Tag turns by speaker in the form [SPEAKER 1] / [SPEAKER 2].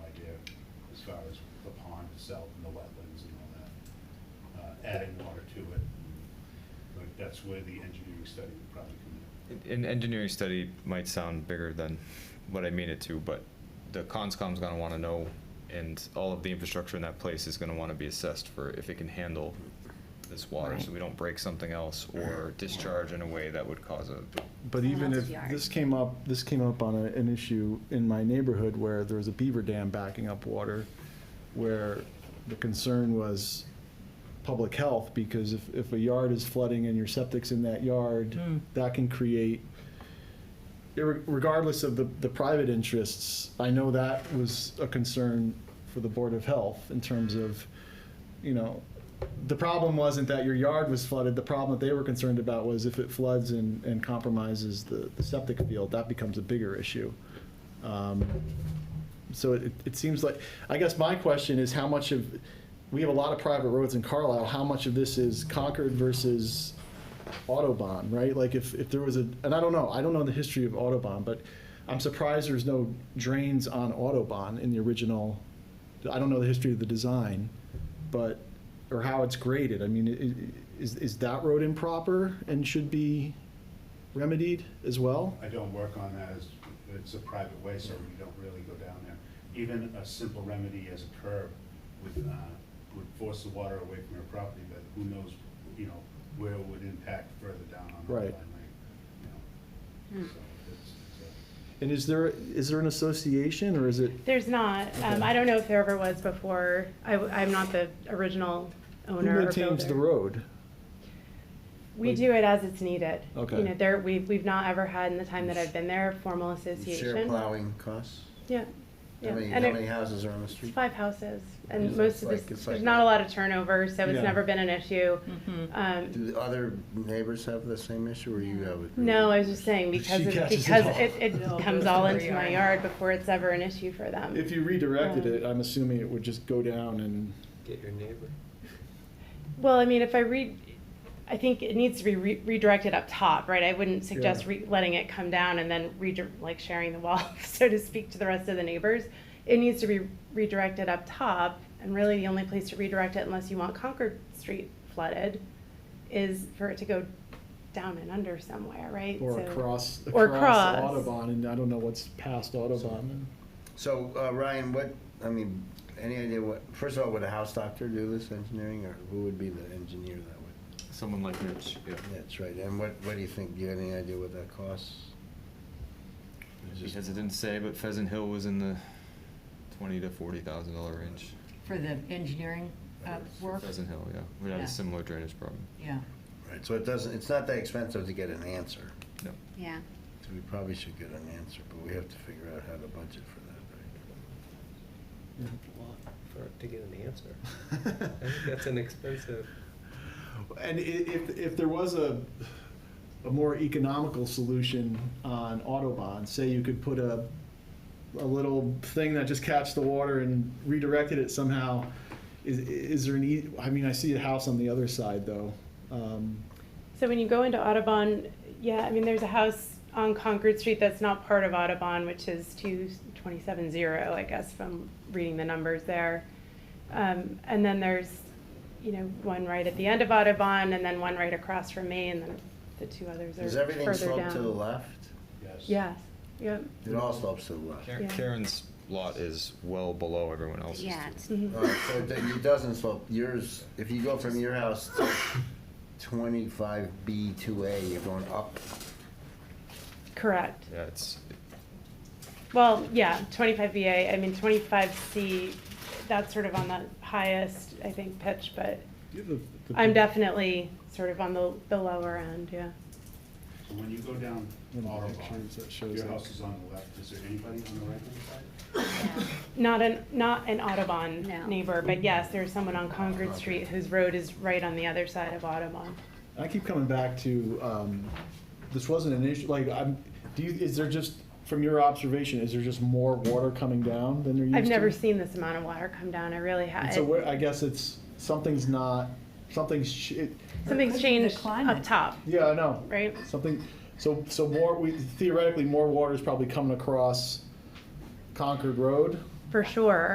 [SPEAKER 1] as far as the pond itself and the wetlands and all that, uh, adding water to it. Like, that's where the engineering study would probably come in.
[SPEAKER 2] An engineering study might sound bigger than what I mean it to, but the conscom's gonna wanna know, and all of the infrastructure in that place is gonna wanna be assessed for if it can handle this water, so we don't break something else or discharge in a way that would cause a,
[SPEAKER 3] But even
[SPEAKER 4] else's
[SPEAKER 3] if,
[SPEAKER 4] yard.
[SPEAKER 3] this came up, this came up on a- an issue in my neighborhood where there was a beaver dam backing up water, where the concern was public health, because if, if a yard is flooding and your septic's in that yard, that can create, irre- regardless of the, the private interests, I know that was a concern for the Board of Health in terms of, you know, the problem wasn't that your yard was flooded. The problem that they were concerned about was if it floods and, and compromises the, the septic field, that becomes a bigger issue. Um, so it, it seems like, I guess my question is how much of, we have a lot of private roads in Carlisle, how much of this is Concord versus Autobahn, right? Like if, if there was a, and I don't know, I don't know the history of Autobahn, but I'm surprised there's no drains on Autobahn in the original, I don't know the history of the design, but, or how it's graded. I mean, i- i- is, is that road improper and should be remedied as well?
[SPEAKER 1] I don't work on that as, it's a private way, so we don't really go down there. Even a simple remedy as a curb would, uh, would force the water away from your property, but who knows, you know, where it would impact further down on the line,
[SPEAKER 3] Right.
[SPEAKER 1] like, you know. So it's, it's a-
[SPEAKER 3] And is there, is there an association or is it,
[SPEAKER 5] There's not. Um,
[SPEAKER 3] Okay.
[SPEAKER 5] I don't know if there ever was before. I, am not the original
[SPEAKER 3] who
[SPEAKER 5] owner or
[SPEAKER 3] maintains the
[SPEAKER 5] builder.
[SPEAKER 3] road?
[SPEAKER 5] We do it as it's needed.
[SPEAKER 3] Okay.
[SPEAKER 5] You know, there, we've, we've not ever had in the time that I've been there, a formal association.
[SPEAKER 6] Share plowing costs?
[SPEAKER 5] Yeah.
[SPEAKER 6] How
[SPEAKER 5] Yeah.
[SPEAKER 6] many, how
[SPEAKER 5] And it-
[SPEAKER 6] many houses are on the
[SPEAKER 5] It's
[SPEAKER 6] street?
[SPEAKER 5] five houses and
[SPEAKER 6] Yeah.
[SPEAKER 5] most of
[SPEAKER 6] Like,
[SPEAKER 5] this,
[SPEAKER 6] it's
[SPEAKER 5] there's
[SPEAKER 6] like
[SPEAKER 5] not
[SPEAKER 6] a-
[SPEAKER 5] a lot of turnover, so it's
[SPEAKER 3] Yeah.
[SPEAKER 5] never been an issue. Um,
[SPEAKER 6] Do the other neighbors have the same issue, or you have? a-
[SPEAKER 5] No, I was just saying, because,
[SPEAKER 3] She
[SPEAKER 5] of-
[SPEAKER 3] catches it
[SPEAKER 5] because
[SPEAKER 3] all.
[SPEAKER 5] it,
[SPEAKER 4] It all
[SPEAKER 5] it comes
[SPEAKER 4] goes
[SPEAKER 5] all
[SPEAKER 4] in her
[SPEAKER 5] into my
[SPEAKER 4] yard.
[SPEAKER 5] yard before it's ever an issue for them.
[SPEAKER 3] If you redirected it, I'm assuming it would just go down and,
[SPEAKER 7] Get your neighbor.
[SPEAKER 5] Well, I mean, if I read, I think it needs to be re- redirected up top, right? I wouldn't suggest
[SPEAKER 3] Yeah.
[SPEAKER 5] re- letting it come down and then redir like sharing the wall, so to speak, to the rest of the neighbors. It needs to be redirected up top, and really the only place to redirect it, unless you want Concord Street flooded, is for it to go down and under somewhere, right?
[SPEAKER 3] or
[SPEAKER 5] So-
[SPEAKER 3] across,
[SPEAKER 5] Or
[SPEAKER 3] across
[SPEAKER 5] across.
[SPEAKER 3] Audubon, and I don't know what's past Audubon.
[SPEAKER 6] So, uh, Ryan, what, I mean, any idea what, first of all, would a house doctor do this engineering, or who would be the engineer that would?
[SPEAKER 2] someone like Mitch, yeah.
[SPEAKER 6] That's right, and what, what do you think, do you have any idea what that costs? It's just-
[SPEAKER 2] Because it didn't say, but Pheasant Hill was in the twenty to forty thousand dollar range.
[SPEAKER 4] For the engineering uh, work?
[SPEAKER 2] Pheasant Hill, yeah, we had
[SPEAKER 4] Yeah.
[SPEAKER 2] a similar drainage problem,
[SPEAKER 4] Yeah.
[SPEAKER 6] Right, so it doesn't, it's not that expensive to get an answer,
[SPEAKER 2] no.
[SPEAKER 4] Yeah.
[SPEAKER 6] so we probably should get an answer, but we have to figure out how to budget for that,
[SPEAKER 7] For, to get an answer. I think that's an expensive.
[SPEAKER 3] And i- if, if there was a, a more economical solution on Autobahn, say you could put a, a little thing that just catch the water and redirected it somehow, is, is there an ea- I mean, I see a house on the other side, though. Um,
[SPEAKER 5] So when you go into Audubon, yeah, I mean, there's a house on Concord Street that's not part of Audubon, which is two twenty-seven zero, I guess, from reading the numbers there. Um, and then there's, you know, one right at the end of Audubon, and then one right across from me, and then the two others
[SPEAKER 6] right? Does
[SPEAKER 5] are
[SPEAKER 6] everything
[SPEAKER 5] further
[SPEAKER 6] slope to the
[SPEAKER 5] down.
[SPEAKER 6] left?
[SPEAKER 1] Yes.
[SPEAKER 5] Yes, yep.
[SPEAKER 6] It all slopes to the left.
[SPEAKER 2] Karen-
[SPEAKER 5] Yeah.
[SPEAKER 2] Karen's lot is well below everyone else's.
[SPEAKER 4] Yeah,
[SPEAKER 2] too.
[SPEAKER 4] it's
[SPEAKER 5] Mhm.
[SPEAKER 6] All right, so it do- it doesn't slope, yours, if you go from your house to twenty-five B two A, you're going up.
[SPEAKER 5] Correct.
[SPEAKER 2] Yeah, it's,
[SPEAKER 5] Well, yeah, twenty-five VA, I mean, twenty-five C, that's sort of on the highest, I think, pitch, but I'm definitely sort of on the, the lower end, yeah.
[SPEAKER 1] So when you go down
[SPEAKER 3] One of the pictures that
[SPEAKER 1] Audubon,
[SPEAKER 3] shows
[SPEAKER 1] your
[SPEAKER 3] that.
[SPEAKER 1] house is on the left, is there anybody on the right-hand side?
[SPEAKER 4] yeah.
[SPEAKER 5] Not an, not an Audubon
[SPEAKER 4] No.
[SPEAKER 5] neighbor, but yes, there's someone on Concord Street whose road is right on the other side of Audubon.
[SPEAKER 3] I keep coming back to, um, this wasn't an issue, like, I'm, do you, is there just, from your observation, is there just more water coming down than there used to?
[SPEAKER 5] I've never seen this amount of water come down, I really
[SPEAKER 3] And
[SPEAKER 5] have.
[SPEAKER 3] so where, I guess it's, something's not, something's, sh- it,
[SPEAKER 5] Something's
[SPEAKER 4] The
[SPEAKER 5] changed up
[SPEAKER 4] climate.
[SPEAKER 5] top,
[SPEAKER 3] yeah, I know.
[SPEAKER 5] right?
[SPEAKER 3] Something, so, so more, we, theoretically, more water is probably coming across Concord Road?
[SPEAKER 5] For sure.